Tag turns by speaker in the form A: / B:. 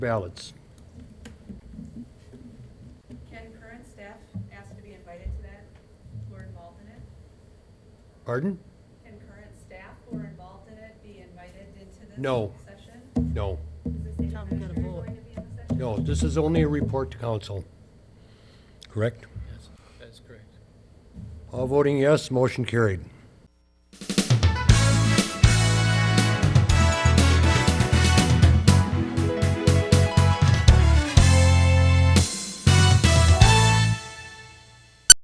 A: ballots.
B: Can current staff ask to be invited to that, who are involved in it?
A: Pardon?
B: Can current staff who are involved in it be invited into this
A: No.
B: session?
A: No,
B: Is the city
C: Tell them we gotta
B: administrator
C: vote.
B: going to be in the session?
A: no, this is only a report to council. Correct?
D: Yes, that's correct.
A: All voting yes, motion carried.